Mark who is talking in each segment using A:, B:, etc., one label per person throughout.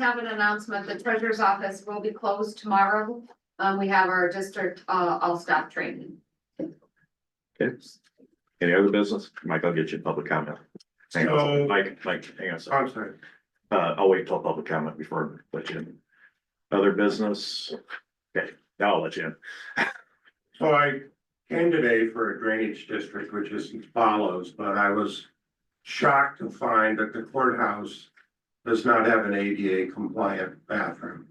A: have an announcement, the treasurer's office will be closed tomorrow. Um, we have our district, uh, all-staff training.
B: Okay. Any other business? Mike, I'll get you public comment. Hang on,
C: So-
B: Mike, Mike, hang on a second.
C: I'm sorry.
B: Uh, I'll wait till public comment before I let you in. Other business? Okay, now I'll let you in.
C: So I came today for a drainage district, which is as follows, but I was shocked to find that the courthouse does not have an ADA compliant bathroom.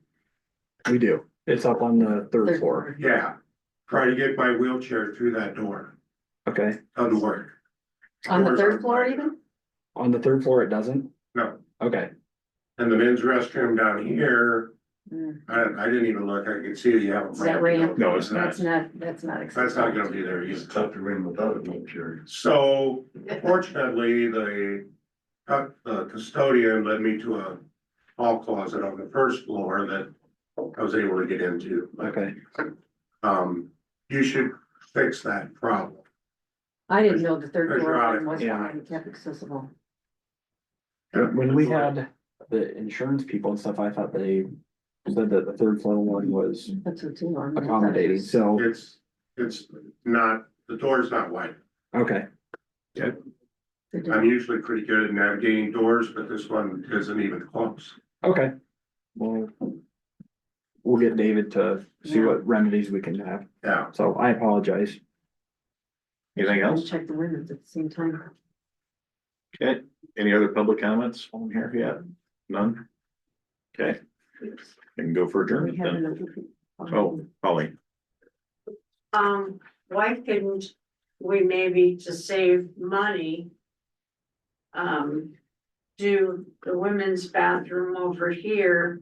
D: We do. It's up on the third floor.
C: Yeah, try to get my wheelchair through that door.
D: Okay.
C: Doesn't work.
E: On the
C: Doors
E: third
C: aren't
E: floor
C: wide
E: even?
D: On the third floor, it doesn't?
C: No.
D: Okay.
C: And the men's restroom down here,
E: Mm,
C: I, I didn't even look. I could see you have. a
E: Is that ramp?
B: No, it's not.
E: That's not, that's not.
C: That's not gonna
E: acceptable.
C: be there either.
F: tough to ring without a wheelchair.
C: So fortunately, the, uh, the custodian led me to a hall closet on the first floor that I was able to get into. But,
D: Okay.
C: Um, you should fix that problem.
E: I didn't know the third
C: There's
E: floor
C: your
E: one
C: attic.
E: was
D: Yeah.
E: wide, kept accessible.
D: When we had the insurance people and stuff, I thought they said that the third floor one was
E: That's what too.
D: Mm-hmm.
E: I'm-
D: accommodating. So,
C: It's, it's not, the door's not wide.
D: okay.
E: They do.
C: I'm usually pretty good at navigating doors, but this one isn't even close.
D: Okay. Well, we'll get David to see what remedies we can have.
C: Yeah.
D: So I apologize.
B: Anything
E: Let's
B: else?
E: Check the windows at the same time.
B: Okay, any other public comments on here yet? None? Okay. Can go for
E: We
B: adjournment
E: have
B: then.
E: another.
B: Oh, Holly,
G: Um, why couldn't we maybe to save money? Um, do the women's bathroom over here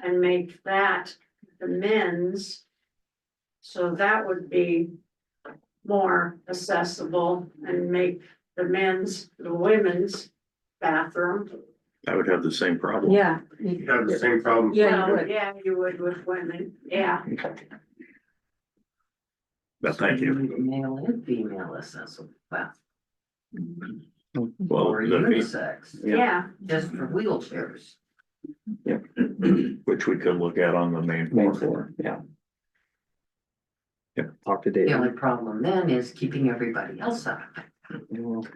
G: and make that the men's. So that would be more accessible and make the men's, the women's bathroom.
B: I would have the same problem.
E: Yeah.
C: You have the same problem.
E: Yeah, you
G: Well,
E: would.
G: Yeah, you would with women, yeah.
B: But thank you.
H: Male and female accessible bathroom.
B: Well,
H: Or
B: the-
H: unisex,
D: Yeah.
G: Yeah,
H: just for wheelchairs.
B: which we could look at on the main
D: Main
B: floor.
D: floor, yeah.
B: Yep.
D: Talk to
H: The
D: David.
H: only problem then is keeping everybody else out. of it.
D: Well,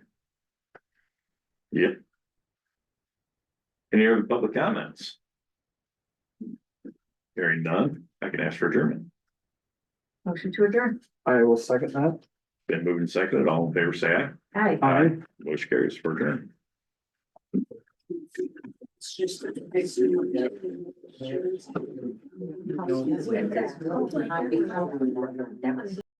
B: Any other public comments? Hearing none, I can ask for adjournment.
E: Motion to adjourn.
D: I will second that.
B: Been moved and seconded, all in favor, say aye.
E: Hi.
B: Aye. Motion carries for adjournment.
G: it's just. that the-
E: That was-